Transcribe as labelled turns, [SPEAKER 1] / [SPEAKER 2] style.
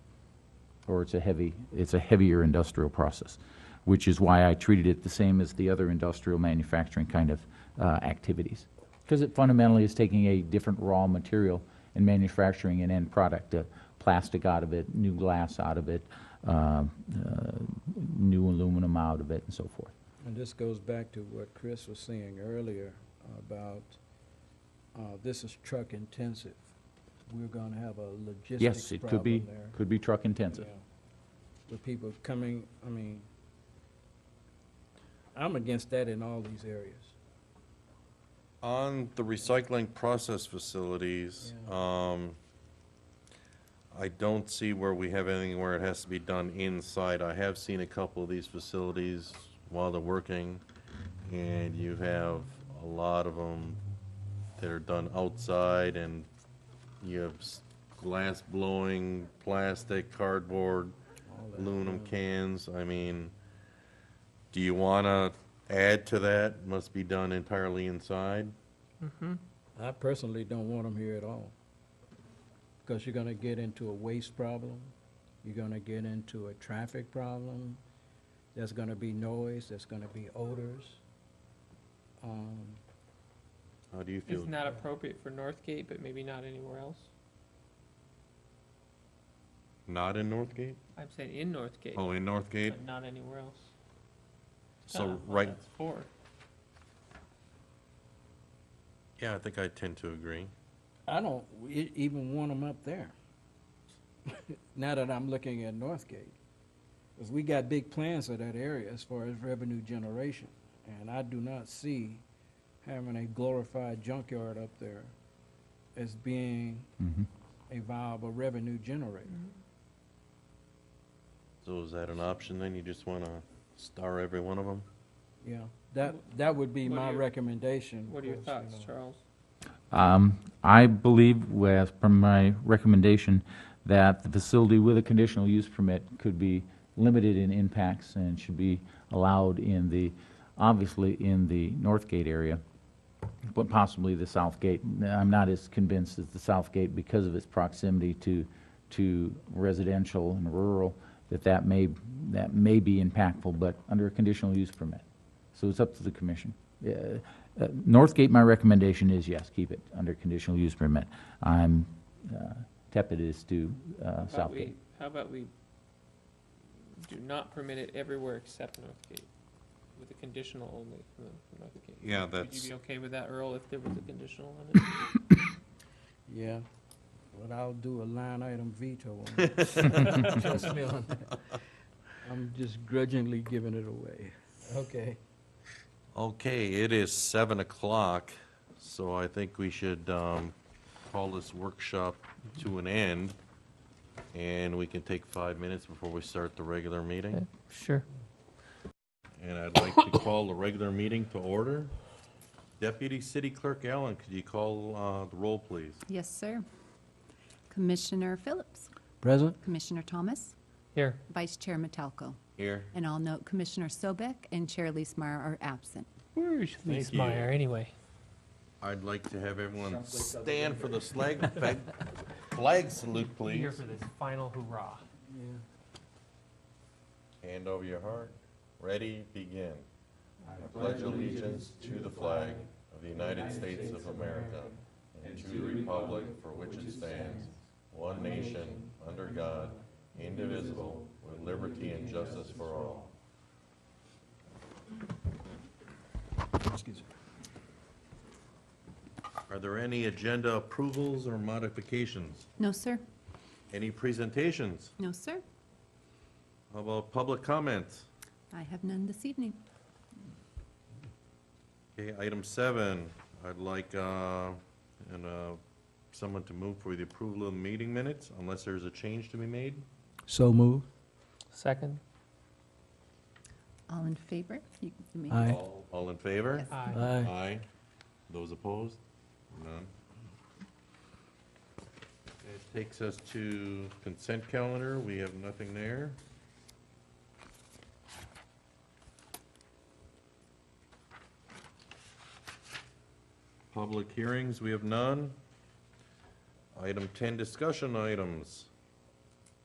[SPEAKER 1] or it's a heavy, it's a heavier industrial process, which is why I treated it the same as the other industrial manufacturing kind of uh, activities. Because it fundamentally is taking a different raw material and manufacturing an end product, uh, plastic out of it, new glass out of it, uh, uh, new aluminum out of it, and so forth.
[SPEAKER 2] And this goes back to what Chris was saying earlier about, uh, this is truck intensive. We're gonna have a logistics
[SPEAKER 1] Yes, it could be,
[SPEAKER 2] problem there.
[SPEAKER 1] could be truck intensive.
[SPEAKER 2] Yeah. With people coming, I mean, I'm against that in all these areas.
[SPEAKER 3] On the recycling process facilities, um, I don't see where we have anything where it has to be done inside. I have seen a couple of these facilities while they're working, and you have a lot of them that are done outside, and you have s- glass blowing, plastic, cardboard,
[SPEAKER 2] all that. Uh,
[SPEAKER 3] aluminum cans, I mean, do you want to add to that, must be done entirely inside?
[SPEAKER 2] I personally don't want them here at all. Because you're gonna get into a waste problem, you're gonna get into a traffic problem, there's gonna be noise, there's gonna be odors. Um,
[SPEAKER 3] How do you feel?
[SPEAKER 4] It's not appropriate for Northgate, but maybe not anywhere else.
[SPEAKER 3] Not in Northgate?
[SPEAKER 4] I'm saying in Northgate,
[SPEAKER 3] Oh, in Northgate?
[SPEAKER 4] but not anywhere else. It's
[SPEAKER 3] So,
[SPEAKER 4] not what
[SPEAKER 3] right-
[SPEAKER 4] that's For,
[SPEAKER 3] Yeah, I think I tend to agree.
[SPEAKER 2] I don't e- even want them up there. Now that I'm looking at Northgate, because we got big plans for that area as far as revenue generation. And I do not see having a glorified junkyard up there as being
[SPEAKER 1] Mhm.
[SPEAKER 2] a viable revenue generator.
[SPEAKER 3] So is that an option then? You just want to star every one of them?
[SPEAKER 2] Yeah, that, that would be
[SPEAKER 4] What are
[SPEAKER 2] my
[SPEAKER 4] your-
[SPEAKER 2] recommendation. of
[SPEAKER 4] what are your
[SPEAKER 2] course, you
[SPEAKER 4] thoughts,
[SPEAKER 2] know.
[SPEAKER 4] Charles?
[SPEAKER 1] Um, I believe, with- from my recommendation, that the facility with a conditional use permit could be limited in impacts and should be allowed in the, obviously, in the North Gate area, but possibly the South Gate. I'm not as convinced as the South Gate because of its proximity to, to residential and rural, that that may, that may be impactful, but under a conditional use permit. So it's up to the commission. Yeah, uh, Northgate, my recommendation is yes, keep it under conditional use permit. I'm uh, tepid as to uh,
[SPEAKER 4] How about
[SPEAKER 1] Southgate.
[SPEAKER 4] we, how about we do not permit it everywhere except Northgate, with a conditional only for for Northgate?
[SPEAKER 3] Yeah,
[SPEAKER 4] Would you
[SPEAKER 3] that's,
[SPEAKER 4] be okay with that, Earl, if there was a conditional on it?
[SPEAKER 2] Yeah, but I'll do a line item veto on it. Trust me on that. I'm just grudgingly giving it away. Okay.
[SPEAKER 3] okay, it is seven o'clock, so I think we should um, call this workshop to an end. And we can take five minutes before we start the regular meeting.
[SPEAKER 4] Sure.
[SPEAKER 3] And I'd like to call the regular meeting to order. Deputy City Clerk Allen, could you call uh, the roll, please?
[SPEAKER 5] Yes, sir. Commissioner Phillips,
[SPEAKER 2] Present?
[SPEAKER 5] Commissioner Thomas,
[SPEAKER 4] Here.
[SPEAKER 5] Vice Chair Metelko.
[SPEAKER 3] Here.
[SPEAKER 5] And I'll note Commissioner Sobek and Chair Leesmeyer are absent.
[SPEAKER 4] Where is
[SPEAKER 3] Thank Mies you. Meyer,
[SPEAKER 4] anyway?
[SPEAKER 3] I'd like to have everyone stand for the flag, flag salute, please.
[SPEAKER 4] for this final hurrah.
[SPEAKER 2] Yeah.
[SPEAKER 3] Hand over your heart. Ready, begin. I pledge allegiance to the flag of the United States of America and to the republic for which it stands, one nation, under God, indivisible, with liberty and justice for all. Are there any agenda approvals or modifications?
[SPEAKER 5] No, sir.
[SPEAKER 3] Any presentations?
[SPEAKER 5] No, sir.
[SPEAKER 3] How about public comments?
[SPEAKER 5] I have none this evening.
[SPEAKER 3] Okay, item seven, I'd like, uh, and, uh, someone to move for the approval of the meeting minutes, unless there's a change to be made.
[SPEAKER 2] So moved.
[SPEAKER 4] Second?
[SPEAKER 5] All in favor? You can make-
[SPEAKER 2] Aye.
[SPEAKER 3] All all in favor?
[SPEAKER 4] Aye.
[SPEAKER 2] Aye.
[SPEAKER 3] Those opposed? None. It takes us to consent calendar, we have nothing there. Public hearings, we have none. Item ten, discussion items.